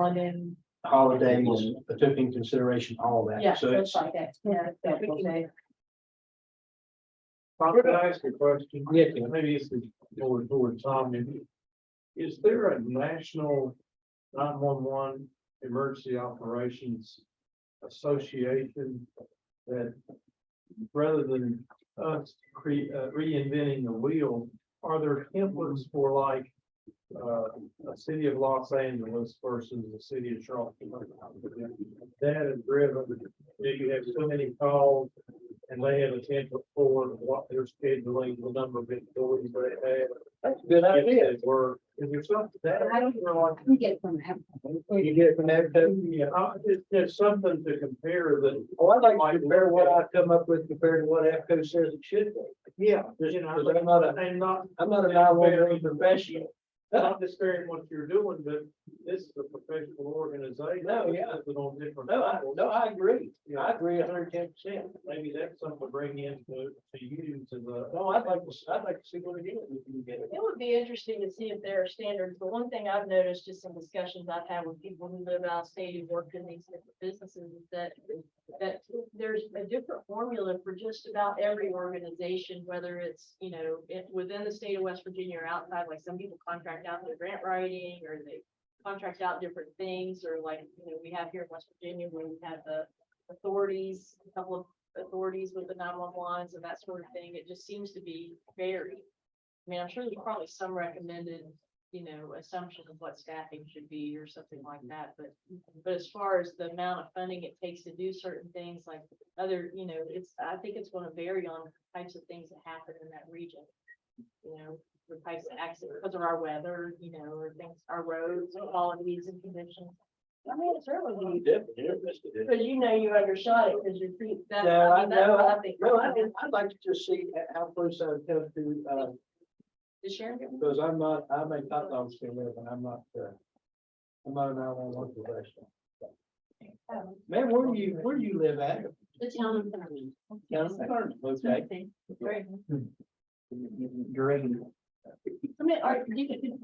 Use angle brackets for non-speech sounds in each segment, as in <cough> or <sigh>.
holiday. holiday was, took in consideration all of Yeah, that, so looks it's. like that. Yeah, that would be- Could I ask a question? Yeah, Ken. Maybe it's going toward Tom. maybe. Is there a national nine-one-one emergency operations association that rather than us cre- uh, reinventing the wheel, are there templates for like uh, a city of Los Angeles versus the city of Charlotte? That is driven, do you have so many calls? And they have a template for what they're scheduling, the number of employees they have. That's a good idea. If they were, if there's something that. I don't know. We get from him. You get it from that, too? Yeah, I, there's, there's something to compare that, oh, I'd like to compare what I come up with compared to what AFCO says it should be. yeah, Just, you know, because I'm not a, and not, I'm not a nine-one-one professional. not disparaging what you're doing, but this is a professional organization. No, yeah. It's on different. No, I, levels. no, I agree. Yeah, I agree hundred and ten percent. Maybe that's something to bring in to, to you to the. No, Oh, I'd like to, s- I'd like to see what it is. if we can get it. It would be interesting to see if there are standards. The one thing I've noticed just in discussions I've had with people who live out of state who work in these different businesses is that that there's a different formula for just about every organization, whether it's, you know, it- within the state of West Virginia or outside, like some people contract out their grant writing or they contract out different things, or like, you know, we have here in West Virginia, where we have the authorities, a couple of authorities with the nine-one-ones and that sort of thing. It just seems to be varied. I mean, I'm sure there's probably some recommended, you know, assumption of what staffing should be or something like that, but. But as far as the amount of funding it takes to do certain things like other, you know, it's, I think it's gonna vary on types of things that happen in that region. You know, the types of accidents, because of our weather, you know, or things, our roads, all of these and conditions. I mean, it's really, Definitely interested in it. because you know you undershot it because you're pre- that- No, I mean, that's know. what I think. No, I, I'd like to just see how close I come to, uh, Did Sharon get one? Because I'm not, I'm a top dog still live and I'm not, uh, I'm not an outlaw one professional. Man, where do you, where do you live at? The town of Thurman. Down in Vernon, Okay. Right. Green. I mean, are you,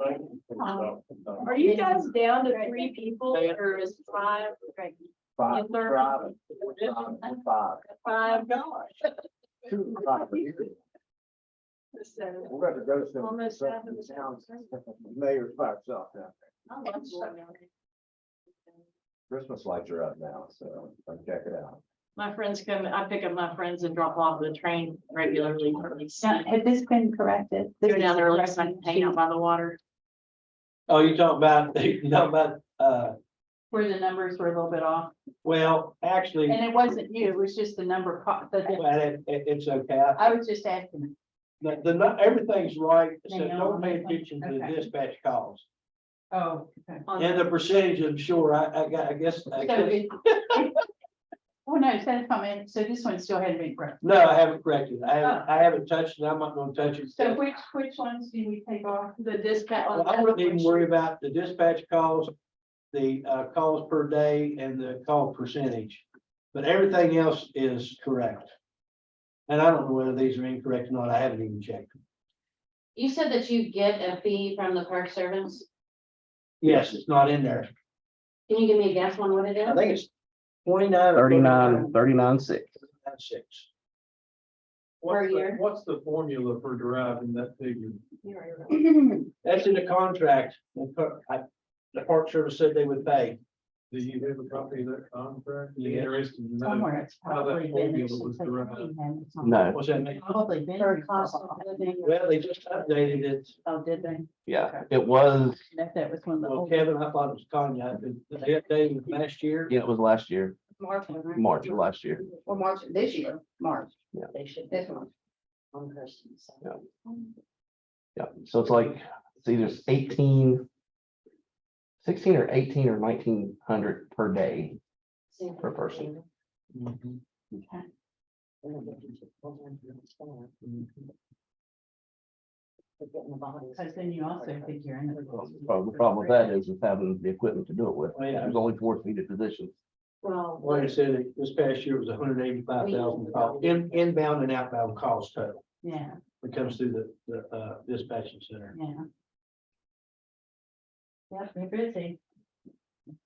are you guys down to three people Yeah. or is five, okay, Five, They're- five, five, five dollars? two, five. So. We're gonna go to some, Almost half of some the towns, town. mayor's by itself now. I'll let you know. Christmas lights are up now, so come check it out. My friends come, I pick up my friends and drop off at the train regularly, or at least Now, Has this been corrected? This go down there, like, is I hang out by the water. Oh, you talking about, <laughs> you talking about, uh, Where the numbers were a little bit off, well, actually, and it wasn't you, it was just the number, of co- the, difference. well, it, it- it's okay. I- I was just asking. The, the, nu- everything's right, so Hang on. don't pay attention to the Okay. dispatch calls. Oh. on And the percentage, I'm sure, I, I, got- I guess, I So guess, it- <laughs> Well, no, it's had a comment, so this one still hadn't been corrected. no, I haven't corrected. it. I haven't, I haven't touched it. I'm not gonna touch it. Oh. So which, which ones do we take off? The dispatch. Well, I wouldn't even worry about the dispatch calls, the uh, calls per day and the call percentage. But everything else is correct. And I don't know whether these are incorrect or not. I haven't even checked. You said that you get a fee from the park servants. Yes, it's not in there. Can you give me a guess on what it I is? think it's twenty-nine. or 39, thirty-nine, six. that's Six. What's the- year. What's the formula for deriving that figure? <clears throat> That's in the contract. The co- I- the Park Service said they would pay. Do you have a copy of that contract? Be Yeah. Interested to know. Somewhere it's How that probably been. formula it's was just like derived. we had it somewhere. No, What's that mean? Probably been. Or cost of living. Well, they just updated it. Oh, did they? yeah, it was, That, that was one of the Well, old. Kevin, I thought it was Kanye. They updated it last year. yeah, it was last year, March, right? March of last year. Or March, this year, March. Yeah. They should. This one. Yeah, so it's like, it's either eighteen, sixteen or eighteen or nineteen hundred per day per person. Mhm. Okay. Cause then you also figure in. the Well, cost. The prob- the problem with that is is having the equipment to do it with. Oh, yeah. There's only four seated positions. Well, Like I said, this past year was hundred eighty-five thousand calls, in, inbound and outbound calls total, Yeah, that comes through the, the, uh, dispatching center. yeah. Yep, they're busy.